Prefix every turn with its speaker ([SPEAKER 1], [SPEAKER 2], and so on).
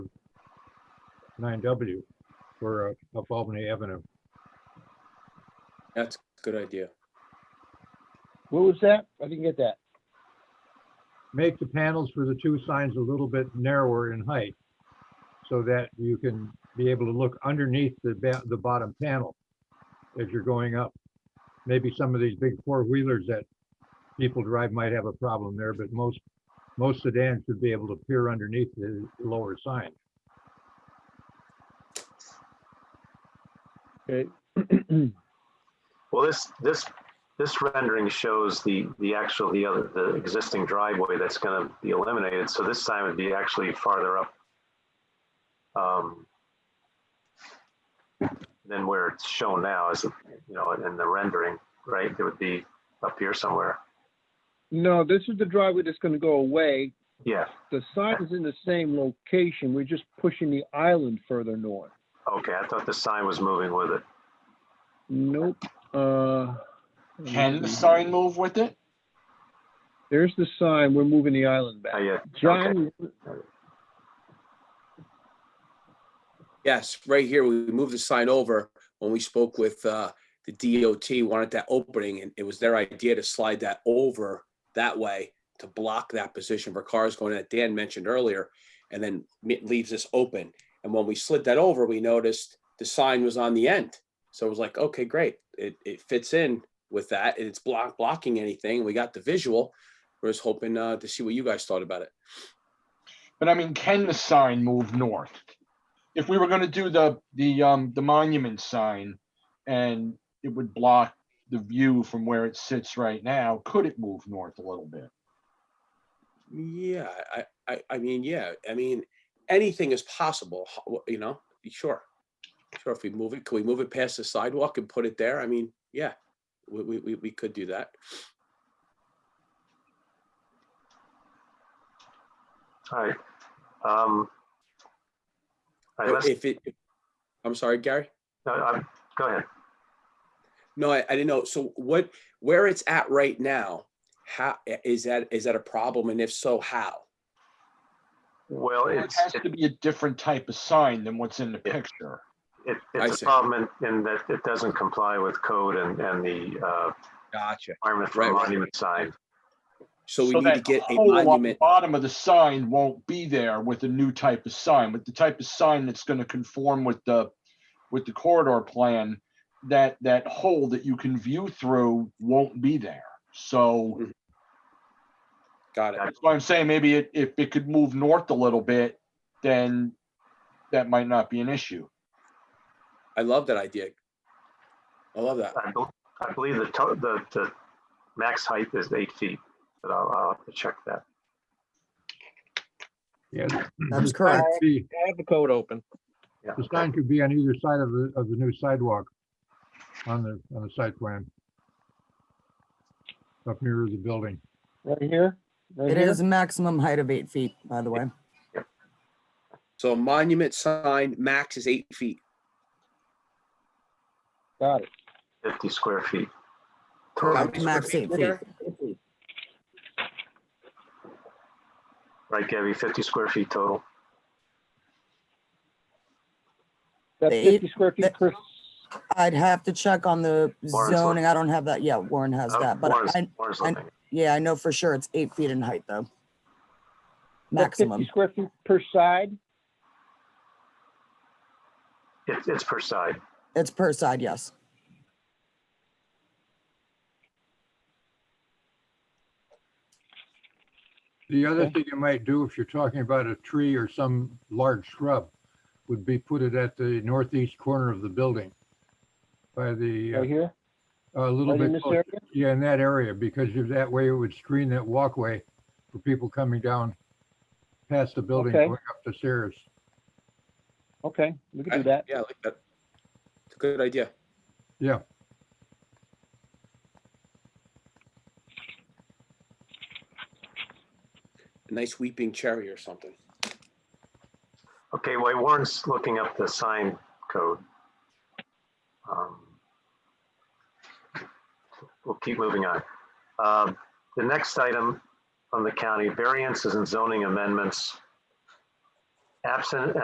[SPEAKER 1] nine W for uh, up Albany Avenue.
[SPEAKER 2] That's a good idea.
[SPEAKER 3] What was that? I didn't get that.
[SPEAKER 1] Make the panels for the two signs a little bit narrower in height so that you can be able to look underneath the ba- the bottom panel as you're going up. Maybe some of these big four-wheelers that people drive might have a problem there, but most, most sedans should be able to peer underneath the lower sign.
[SPEAKER 3] Okay.
[SPEAKER 4] Well, this, this, this rendering shows the, the actual, the other, the existing driveway that's going to be eliminated. So this sign would be actually farther up um, than where it's shown now as, you know, in the rendering, right? It would be up here somewhere.
[SPEAKER 3] No, this is the driveway that's gonna go away.
[SPEAKER 4] Yeah,
[SPEAKER 3] The sign is in the same location. We're just pushing the island further north.
[SPEAKER 4] okay. I thought the sign was moving with it.
[SPEAKER 3] Nope, uh.
[SPEAKER 5] Can the sign move with it?
[SPEAKER 3] There's the sign. We're moving the island
[SPEAKER 4] Oh,
[SPEAKER 3] back.
[SPEAKER 4] yeah, okay.
[SPEAKER 3] John,
[SPEAKER 2] Yes, right here, we moved the sign over when we spoke with uh, the DOT, wanted that opening, and it was their idea to slide that over that way to block that position for cars going that Dan mentioned earlier, and then it leaves this open. And when we slid that over, we noticed the sign was on the end. So it was like, okay, great. It, it fits in with that, and it's block, blocking anything. We got the visual. We're just hoping uh, to see what you guys thought about it.
[SPEAKER 5] But I mean, can the sign move north? If we were gonna do the, the, um, the monument sign and it would block the view from where it sits right now, could it move north a little bit?
[SPEAKER 2] Yeah, I, I, I mean, yeah, I mean, anything is possible, ho- wh- you know, sure. Sure, if we move it, can we move it past the sidewalk and put it there? I mean, yeah, we, we, we, we could do that.
[SPEAKER 4] All right. Um, all right,
[SPEAKER 2] But
[SPEAKER 4] let's,
[SPEAKER 2] If it, I'm sorry, Gary?
[SPEAKER 4] no, I'm- uh, go ahead.
[SPEAKER 2] No, I, I didn't know. So what, where it's at right now, how, i- is that, is that a problem? And if so, how?
[SPEAKER 4] Well,
[SPEAKER 5] Well, It
[SPEAKER 4] it's,
[SPEAKER 5] has
[SPEAKER 4] it-
[SPEAKER 5] to be a different type of sign than what's in the
[SPEAKER 4] Yeah.
[SPEAKER 5] picture.
[SPEAKER 4] it,
[SPEAKER 2] I
[SPEAKER 4] it's
[SPEAKER 2] see.
[SPEAKER 4] a problem in, in that it doesn't comply with code and, and the, uh,
[SPEAKER 2] Gotcha.
[SPEAKER 4] requirement for
[SPEAKER 2] Right,
[SPEAKER 4] a
[SPEAKER 2] right.
[SPEAKER 4] monument sign.
[SPEAKER 2] So we
[SPEAKER 5] So
[SPEAKER 2] need to
[SPEAKER 5] that
[SPEAKER 2] get a
[SPEAKER 5] hole on the
[SPEAKER 2] monument,
[SPEAKER 5] Bottom of the sign won't be there with a new type of sign, with the type of sign that's gonna conform with the, with the corridor plan. That, that hole that you can view through won't be there. So
[SPEAKER 2] got it.
[SPEAKER 4] Yeah.
[SPEAKER 5] that's why I'm saying maybe it, if it could move north a little bit, then that might not be an issue.
[SPEAKER 2] I love that idea. I love that.
[SPEAKER 4] I, bel- I believe the, to- the, the max height is eight feet, but I'll, I'll have to check that.
[SPEAKER 1] Yeah.
[SPEAKER 6] That's
[SPEAKER 1] the sign
[SPEAKER 6] correct.
[SPEAKER 1] could be-
[SPEAKER 3] I have the code open.
[SPEAKER 4] Yeah.
[SPEAKER 1] The sign could be on either side of the, of the new sidewalk on the, on the site plan. Up near the building.
[SPEAKER 3] Right here? Right
[SPEAKER 6] It
[SPEAKER 3] here?
[SPEAKER 6] is a maximum height of eight feet, by the way.
[SPEAKER 2] So a monument sign, max is eight feet.
[SPEAKER 3] Got it.
[SPEAKER 4] Fifty square feet.
[SPEAKER 2] Correct.
[SPEAKER 6] Max eight feet.
[SPEAKER 4] Right, Gabby, fifty square feet total.
[SPEAKER 3] That's
[SPEAKER 6] The eight-
[SPEAKER 3] fifty square feet
[SPEAKER 6] that-
[SPEAKER 3] per,
[SPEAKER 6] I'd have to check on the
[SPEAKER 4] Warren's
[SPEAKER 6] zoning. I don't have that yet. Warren has
[SPEAKER 4] Uh,
[SPEAKER 6] that, but
[SPEAKER 4] Warren's-
[SPEAKER 6] I,
[SPEAKER 4] Warren's
[SPEAKER 6] I-
[SPEAKER 4] looking.
[SPEAKER 6] yeah, I know for sure it's eight feet in height though.
[SPEAKER 3] that's fifty
[SPEAKER 6] Maximum.
[SPEAKER 3] square feet per side?
[SPEAKER 4] It's, it's per side.
[SPEAKER 6] It's per side, yes.
[SPEAKER 1] The other
[SPEAKER 3] Okay.
[SPEAKER 1] thing you might do if you're talking about a tree or some large shrub would be put it at the northeast corner of the building by
[SPEAKER 3] Right
[SPEAKER 1] the,
[SPEAKER 3] here?
[SPEAKER 1] uh, a little
[SPEAKER 3] Right in
[SPEAKER 1] bit,
[SPEAKER 3] this
[SPEAKER 1] closer.
[SPEAKER 3] area?
[SPEAKER 1] yeah, in that area, because you- that way it would screen that walkway for people coming down past the building,
[SPEAKER 3] Okay.
[SPEAKER 1] going up the stairs.
[SPEAKER 3] Okay, we can
[SPEAKER 2] I-
[SPEAKER 3] do that.
[SPEAKER 2] Yeah, I like that. It's a good idea.
[SPEAKER 1] Yeah.
[SPEAKER 2] A nice weeping cherry or something.
[SPEAKER 4] Okay, wait, Warren's looking up the sign code. Um, We'll keep moving on. Um, The next item from the county, variances and zoning amendments. Absent